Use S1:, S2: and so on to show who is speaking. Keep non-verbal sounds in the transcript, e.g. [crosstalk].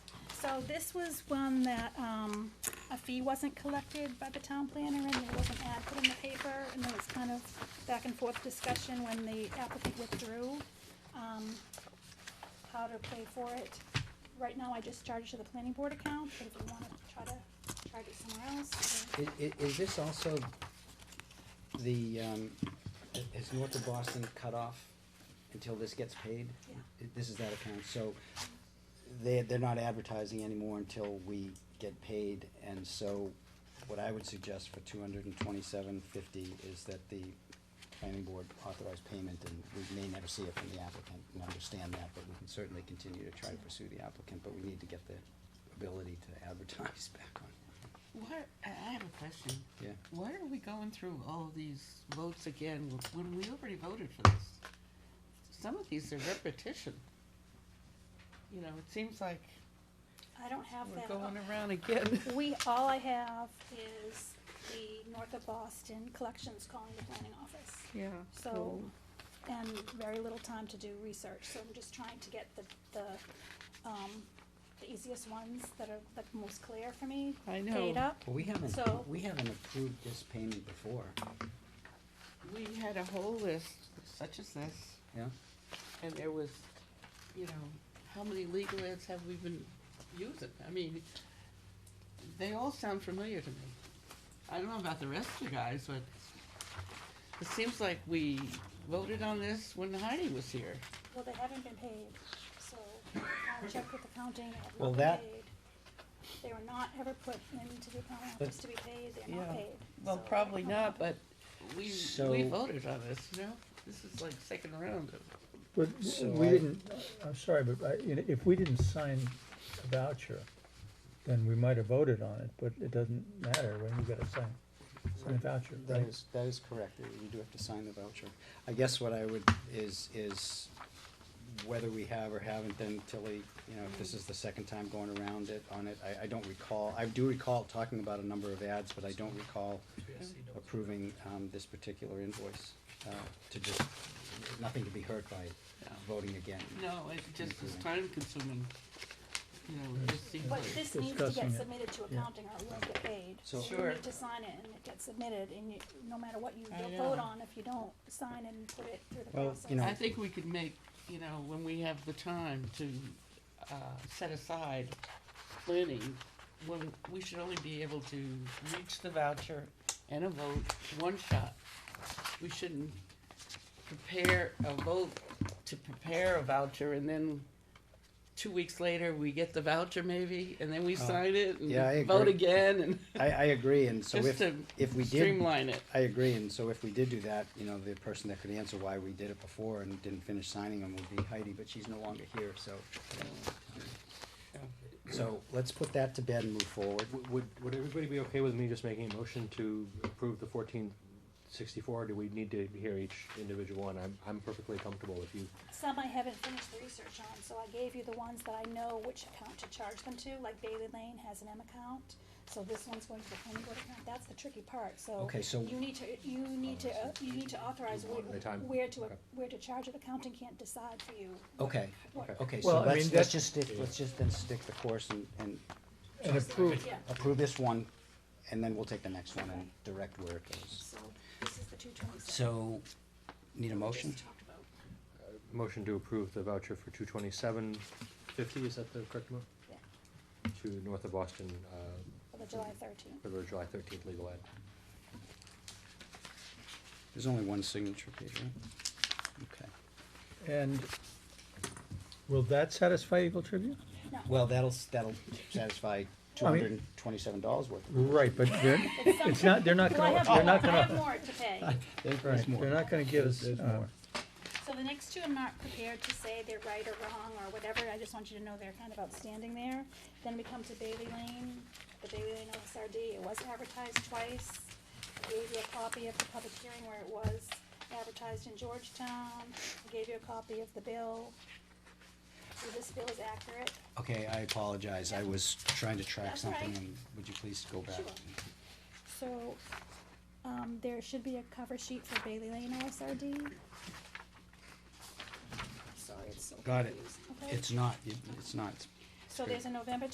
S1: So this was one that, um, a fee wasn't collected by the town planner and there was an ad put in the paper and there was kind of back and forth discussion when the applicant withdrew, um, how to pay for it. Right now, I just charge to the planning board account, but if you wanna try to charge it somewhere else,
S2: I- i- is this also the, um, i- is North of Boston cut off until this gets paid?
S1: Yeah.
S2: I- This is that account, so they, they're not advertising anymore until we get paid, and so what I would suggest for two hundred and twenty-seven fifty is that the planning board authorize payment, and we may never see it from the applicant, and understand that, but we can certainly continue to try to pursue the applicant, but we need to get the ability to advertise [laughs] back on,
S3: Why, I I have a question.
S2: yeah.
S3: Why are we going through all of these votes again wh- when we already voted for this? Some of these are repetition. You know, it seems like
S1: I don't have
S3: we're
S1: that.
S3: going around again. [laughs]
S1: We, all I have is the North of Boston Collections calling the planning office.
S3: Yeah.
S1: So, and very little time to do research, so I'm just trying to get the, the, um, the easiest ones that are, that most clear for me.
S3: I
S1: Paid
S3: know.
S1: up,
S2: Well, we haven't,
S1: So-
S2: we haven't approved this payment before,
S3: We had a whole list such as this,
S2: yeah?
S3: and there was, you know, how many legal ads have we been using? I mean, they all sound familiar to me. I don't know about the rest of you guys, but it seems like we voted on this when Heidi was here.
S1: well, they haven't been paid, so I checked with accounting, they
S2: Well,
S1: have not
S2: that-
S1: been paid. They were not ever put into the accounting
S2: But-
S1: office to be paid, they're not
S3: Yeah.
S1: paid.
S3: Well,
S1: so I
S3: probably
S1: don't know.
S3: not, but we, we
S2: So-
S3: voted on this, you know? This is like second round of,
S4: But
S2: So
S4: we
S2: I-
S4: didn't, I'm sorry, but I- you know, if we didn't sign a voucher, then we might have voted on it, but it doesn't matter when you gotta sign, sign a voucher,
S2: That
S4: right?
S2: is, that is correct, you do have to sign the voucher. I guess what I would, is, is whether we have or haven't, then Tilly, you know, if this is the second time going around it, on it, I, I don't recall. I do recall talking about a number of ads, but I don't recall approving, um, this particular invoice, uh, to just, nothing to be hurt by
S3: Yeah.
S2: voting again.
S3: no, it just is time consuming. You know, it just seems
S1: But
S3: like,
S1: this needs to
S4: Discussing
S1: get
S4: it.
S1: submitted to
S4: Yeah.
S1: accounting or it won't get paid.
S2: So-
S1: You
S3: Sure.
S1: need to sign it and it gets submitted and you, no matter what you
S3: I
S1: vote
S3: know.
S1: on, if you don't sign and put it through the
S2: Well,
S1: process.
S2: you know-
S3: I think we could make, you know, when we have the time to, uh, set aside planning, when, we should only be able to reach the voucher and a vote, one shot. We shouldn't prepare a vote to prepare a voucher and then two weeks later, we get the voucher maybe, and then we sign it
S2: Uh, yeah, I
S3: and vote
S2: agree.
S3: again and.
S2: I, I agree, and so
S3: [laughs] Just
S2: if,
S3: to
S2: if we did.
S3: streamline it.
S2: I agree, and so if we did do that, you know, the person that could answer why we did it before and didn't finish signing them would be Heidi, but she's no longer here, so. So let's put that to bed and move forward.
S5: Would- Would, would everybody be okay with me just making a motion to approve the fourteen sixty-four? Do we need to hear each individual one? I'm, I'm perfectly comfortable if you,
S1: Some I haven't finished the research on, so I gave you the ones that I know which account to charge them to, like Bailey Lane has an M account. So this one's going to the planning board account, that's the tricky part, so.
S2: Okay, so-
S1: You need to, you need to, uh, you need to authorize
S5: one at a
S1: where,
S5: time.
S1: where to,
S5: Okay.
S1: where to charge it, accounting can't decide for you.
S2: Okay,
S1: what-
S5: Okay.
S2: okay, so
S4: Well, I mean,
S2: let's, let's
S4: that's-
S2: just stick, let's just then stick the course and, and
S4: And approve,
S1: Yeah,
S2: approve this one, and then we'll take the next one and direct where it goes.
S1: so this is the two twenty-seven.
S2: So, need a motion?
S5: motion to approve the voucher for two twenty-seven fifty, is that the correct one?
S1: Yeah.
S5: To North of Boston, uh,
S1: For the July thirteenth.
S5: for the July thirteenth legal ad.
S2: There's only one signature page, right? Okay.
S4: and will that satisfy Eagle Tribune?
S2: Well, that'll, s- that'll satisfy two
S4: I mean-
S2: hundred and twenty-seven dollars worth.
S4: Right, but they're, it's not, they're not
S1: Well, I
S4: gonna,
S1: have
S4: they're
S1: more,
S4: not
S1: I have
S4: gonna,
S1: more to pay.
S4: [laughs]
S2: There's
S4: right,
S2: more.
S4: they're not gonna give us,
S2: There's
S4: uh,
S2: more.
S1: So the next two, I'm not prepared to say they're right or wrong or whatever, I just want you to know they're kind of outstanding there. Then we come to Bailey Lane, the Bailey Lane OSRD, it was advertised twice. I gave you a copy of the public hearing where it was advertised in Georgetown, I gave you a copy of the bill. So this bill is accurate,
S2: Okay, I apologize, I was trying to track
S1: That's
S2: something,
S1: right.
S2: and would you please go back?
S1: Sure. so, um, there should be a cover sheet for Bailey Lane OSRD. Sorry, it's so
S2: Got it.
S1: confused, okay?
S2: It's not, it- it's not, it's
S1: So there's a November